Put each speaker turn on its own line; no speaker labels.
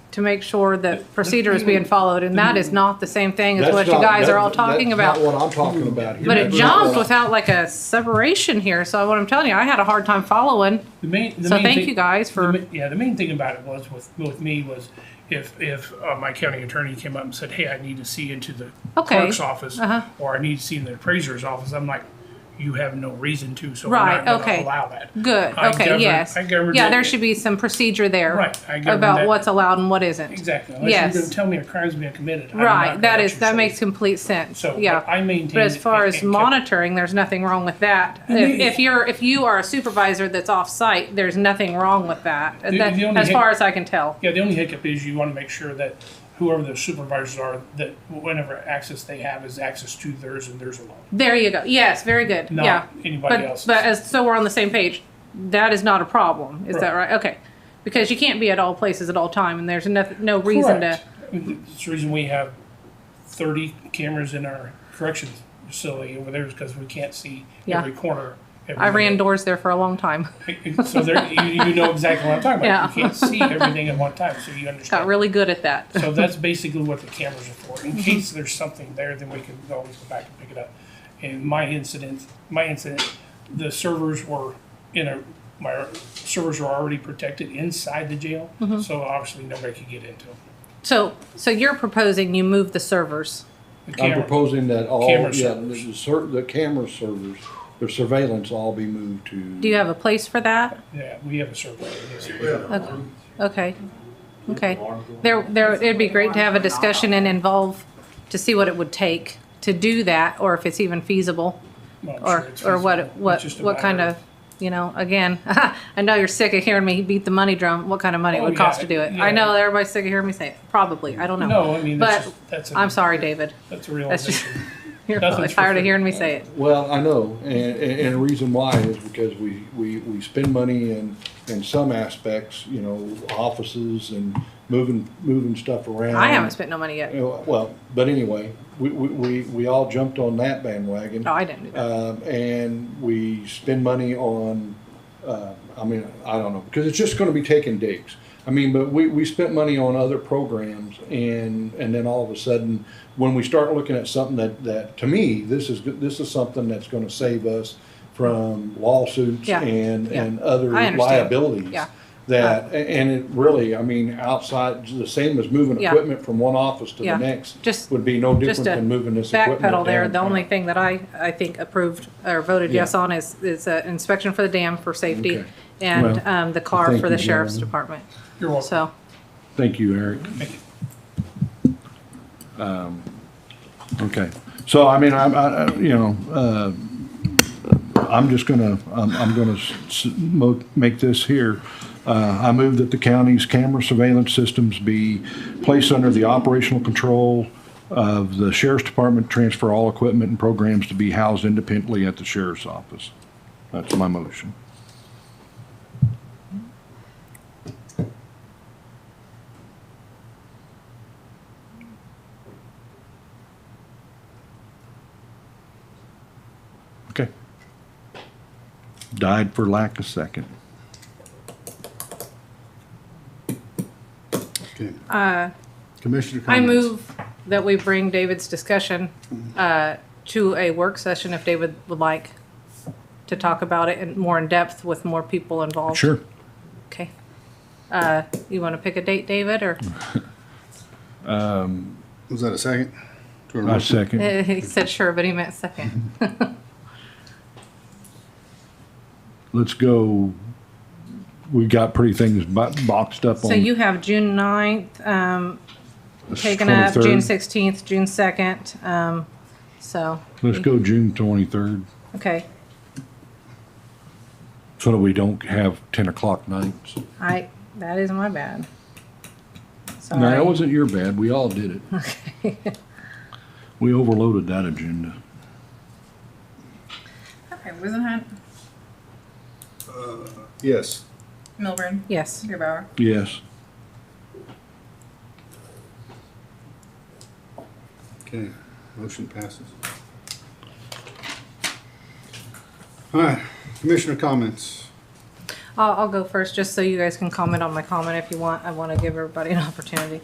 to make sure that procedure is being followed, and that is not the same thing as
That's
what you
not-
guys
that-
are all talking about.
That's not what I'm talking about here.
But it
That's
jumped
what I-
without like a separation here, so what I'm telling you, I had a hard time following.
The main, the
So
main
thank
thing-
you guys
the
for-
ma- yeah, the main thing about it was with with me was if if uh, my county attorney came up and said, "Hey, I need to see into the
Okay.
clerk's office,
Uh-huh.
or I need to see in the appraiser's office," I'm like, "You have no reason to, so
Right,
we're not
okay.
to allow that."
Good,
I
okay,
governed-
yes.
I governed
Yeah,
it.
there should be some procedure there.
Right, I governed
About
that.
what's allowed and what isn't.
Exactly. Unless
Yes.
you're going to tell me a crime's been committed. I'm not
Right,
gonna
that
let
is,
you
that
say-
makes complete sense,
So
yeah.
but I maintain.
But as far
it-
as
it kept-
monitoring, there's nothing wrong with that. If,
you-
if you're, if you are a supervisor that's off-site, there's nothing wrong with that,
The-
that-
the only
as
hic-
far as I can tell.
Yeah, the only hiccup is you want to make sure that whoever the supervisors are, that whatever access they have is access to theirs and theirs alone.
There you go, yes, very good,
Not
yeah.
anybody
But-
else's.
But as, so we're on the same page, that is not a problem, is that
Right.
right? Okay, because you can't be at all places at all time, and there's no, no reason to.
Correct. It's the reason we have thirty cameras in our corrections facility over there is because we can't see
Yeah.
every corner. every
I ran
minute.
doors there for a long time.
So there, you, you know exactly what I'm talking about.
Yeah.
You can't see everything at one time, so you
Got
understand.
really good at that.
So that's basically what the cameras are for.
Mm-hmm.
In case there's something there, then we can always go back and pick it up. In my incident, my incident, the servers were in a, my servers were already protected inside the jail,
Mm-hmm.
so obviously nobody could get into them.
So, so you're proposing you move the servers.
The
I'm
camera-
proposing that all, yeah,
Camera
the
servers.
cer- the camera servers, the surveillance all be moved to.
Do you have a place for that?
Yeah, we have a server. Yes.
Okay, okay. There, there, it'd be great to have a discussion and involve, to see what it would take to do that, or if it's even feasible,
Well, I'm sure
or,
it's
or what,
feasible.
what,
It's just a
what kind
matter
of, you know, again, I know you're sick of hearing me beat the money drum, what kind of money it
Oh,
would
yeah,
cost to do it. I
yeah.
know everybody's sick of hearing me say it, probably, I don't know.
No, I mean,
But
that's, just- that's,
I'm
a-
sorry, David,
that's a
that's just-
realization.
you're probably
Nothing's for
tired of
free.
hearing me say it.
Well, I know, and, and, and the reason why is because we, we, we spend money in, in some aspects, you know, offices and moving, moving stuff around.
I haven't spent no money yet.
You know, Well, but anyway, we, we, we, we all jumped on that bandwagon.
No, I didn't do that.
Um, and we spend money on, uh, I mean, I don't know, because it's just gonna be taking digs. I mean, but we, we spent money on other programs and, and then all of a sudden, when we start looking at something that, that, to me, this is, go- this is something that's gonna save us from lawsuits
Yeah,
and,
yeah.
and other
I understand.
liabilities.
Yeah.
That, a- and it really, I mean, outside, the same as moving
Yeah.
equipment from one office to
Yeah.
the next.
Just-
Would be no
just
different
to
than moving this equipment.
backpedal there, the
downtown.
only thing that I, I think approved or voted yes
Yeah.
on is, is uh, inspection for the dam for safety
Okay.
and
Well,
um, the car
thank
for the
you,
sheriff's
gentlemen.
department.
You're welcome.
So,
Thank you, Eric. Um,
Thank you.
Okay, so I mean, I'm, I, I- you know, uh, I'm just gonna, I'm, I'm gonna s- s- mo- make this here. Uh, I move that the county's camera surveillance systems be placed under the operational control of the sheriff's department, transfer all equipment and programs to be housed independently at the sheriff's office. That's my motion. Okay. Died for lack of second.
Okay. Commissioner
Uh, I
comments.
move that we bring David's discussion uh, to a work session if David would like to talk about it in more in depth with more people involved. Okay. Uh, You want to pick a date, David, or
Was that a second? To a
I
motion?
second.
he said sure, but he meant second.
Let's go. We got pretty things bo- boxed up on.
So you have June 9th, um, taken up,
23rd.
June 16th, June 2nd. Um, so,
Let's go June twenty-third,
okay,
so that we don't have ten o'clock nights.
I, that is my bad.
No, that
Sorry.
wasn't your bad. We all did it. We overloaded that agenda.
Okay, Wizenhunt,
Yes.
Milburn,
Yes,
Bauer.
Yes.
Okay, motion passes. All right, commissioner comments.
I'll, I'll go first, just so you guys can comment on my comment if you want. I want to give everybody an opportunity.